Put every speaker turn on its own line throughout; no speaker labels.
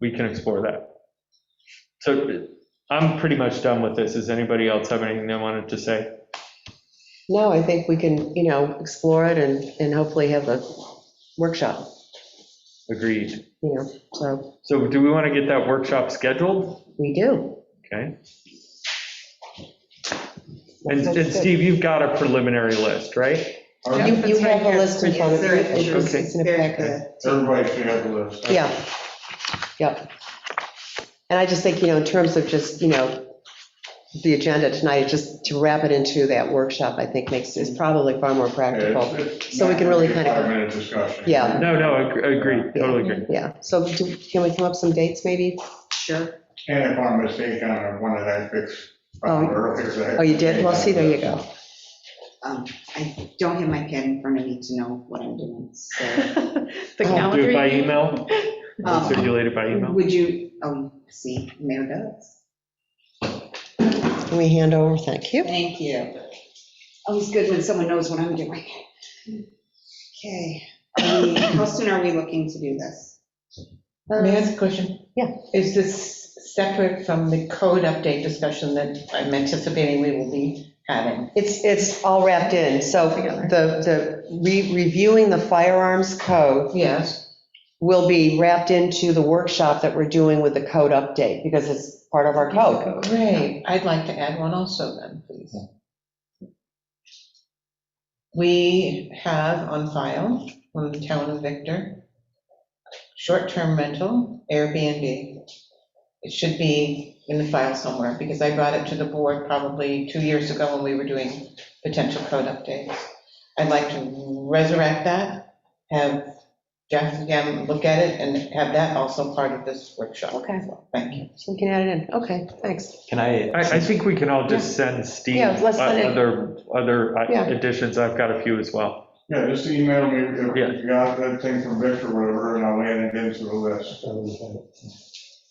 we can explore that. So I'm pretty much done with this. Does anybody else have anything they wanted to say?
No, I think we can, you know, explore it and, and hopefully have a workshop,
Agreed.
you know, so
So do we want to get that workshop scheduled?
we do.
Okay. And and Steve, you've got a preliminary list, right?
You, you have a list in front of you.
Yes, there
It's
is.
it's in a packet.
Everybody should have the list.
Yeah, yep. And I just think, you know, in terms of just, you know, the agenda tonight, just to wrap it into that workshop, I think makes, is probably far more practical. So we can really kind of-
Five-minute discussion.
Yeah.
No, no, ag- agreed, totally agree.
Yeah, so do- can we come up some dates maybe?
Sure.
And if I'm mistaken, on one that I fixed
Oh.
earlier.
Oh, you did? Well, see, there you go.
Um, I don't have my pad in front of me to know what I'm doing, so.
The
Do
calendar.
it by email,
um,
circulate it by email.
Would you, oh, see, mayor does.
Can we hand over? Thank you.
Thank you. Always good when someone knows what I'm doing. Okay, are we- how soon are we looking to do this?
May I ask a question?
Um, Yeah.
Is this separate from the code update discussion that I'm anticipating we will be having?
It's, it's all wrapped in, so
Together.
the, the, re- reviewing the firearms code
Yes.
will be wrapped into the workshop that we're doing with the code update, because it's part of our code.
Great. I'd like to add one also then, please. We have on file from the town of Victor, short-term rental Airbnb. It should be in the file somewhere because I brought it to the board probably two years ago when we were doing potential code updates. I'd like to resurrect that, have Jeff again look at it and have that also part of this workshop.
Okay.
Thank you.
So we can add it in, okay, thanks.
Can I,
I, I think we can all just send Steve uh,
Yeah, let's send it.
other, other uh,
Yeah.
additions. I've got a few as well.
Yeah, just email me
Yeah.
if you got that thing from Victor or whatever, and I'll add it into the list.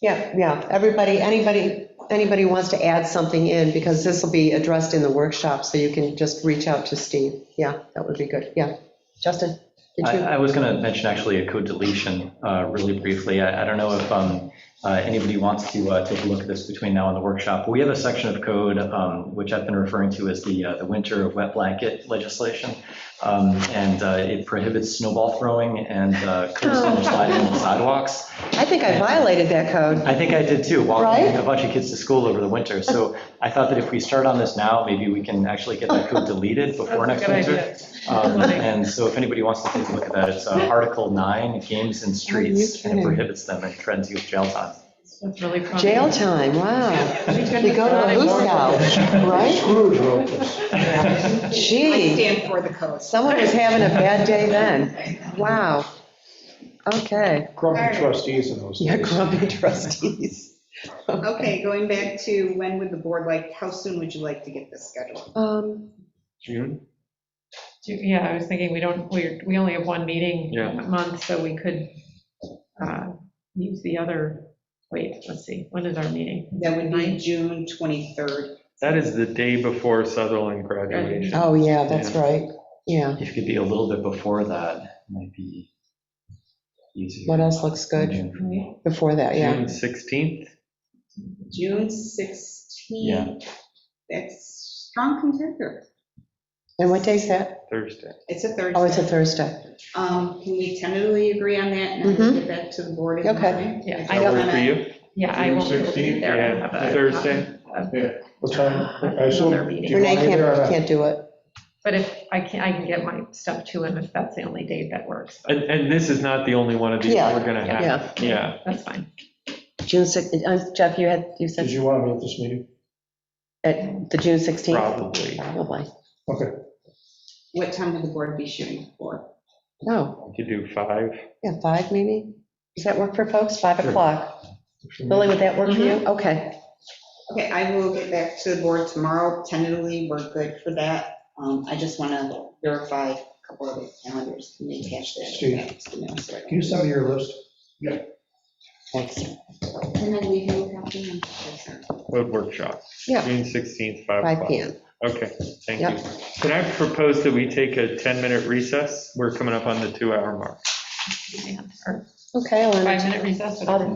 Yeah, yeah, everybody, anybody, anybody wants to add something in, because this will be addressed in the workshop, so you can just reach out to Steve. Yeah, that would be good, yeah. Justin, did
I
you?
I was going to mention actually a code deletion uh, really briefly. I I don't know if um, uh, anybody wants to uh, take a look at this between now and the workshop. We have a section of code, um, which I've been referring to as the uh, the winter wet blanket legislation. Um, And uh, it prohibits snowball throwing and uh, curb summer sliding on sidewalks.
I think I violated that code.
I think I did too, walking
Right?
a bunch of kids to school over the winter. So I thought that if we start on this now, maybe we can actually get that code deleted before
That's a
next
good
winter.
idea.
Um,
Funny.
And so if anybody wants to take a look at that, it's uh, Article 9, Games
Oh,
in Streets, and it prohibits them and threatens you with jail time.
That's really funny.
Jail time, wow. You go to a
Well,
loose house, right?
Scrooge wrote this.
I
Gee,
stand for the code.
someone was having a bad day then. Wow. Okay.
Alright.
Grumpy trustees in those
Yeah,
days.
grumpy trustees.
Okay, going back to when would the board like, how soon would you like to get this scheduled?
Um,
June?
Yeah, I was thinking, we don't, we, we only have one meeting
Yeah.
a month, so we could uh, use the other, wait, let's see, when is our meeting?
That would be June 23rd.
That is the day before Sutherland graduation.
oh, yeah, that's right, yeah.
If it could be a little bit before that, it might be easier.
What else looks good
Right?
before that, yeah?
June 16th?
June
Yeah.
16th. That's strong contender.
And what day's that?
Thursday.
It's a Thursday.
Oh, it's a Thursday.
Um, Can we tentatively agree on that and then get back to the board? in the
Mm-hmm. Okay.
morning?
Yeah, I
That
don't,
work for you?
yeah, I won't be able to be there. I
Yeah,
have a-
Thursday.
What time? I assume-
Another meeting.
do you
Renee
want me there or
can't,
not?
can't do it.
But if, I can, I can get my stuff to him if that's the only date that works.
And, and this is not the only one of these
Yeah,
we're going to have. Yeah.
That's fine.
June 16th, Jeff, you had, you
Did
said
you want me at this meeting?
at the June 16th?
Probably.
Probably.
Okay.
What time would the board be shooting for?
No,
We could do five.
Oh, yeah, five maybe? Does that work for folks? Five
Sure.
o'clock? Lily, would that work for you? Okay.
Okay, I will get back to the board tomorrow. Tentatively, we're good for that. Um, I just want to verify a couple of the calendars. Can we attach that?
Steve.
back to the mail so I
Can you send me your list?
Thanks.
Can I leave you a copy? I'm sorry.
Road workshop.
Yeah.
June 16th, 5
Five
o'clock.
PM.
Okay, thank
Yep.
you. Can I propose that we take a 10-minute recess? We're coming up on the two-hour mark.
Yeah, Or
Okay, I'll entertain-
five-minute recess. whatever.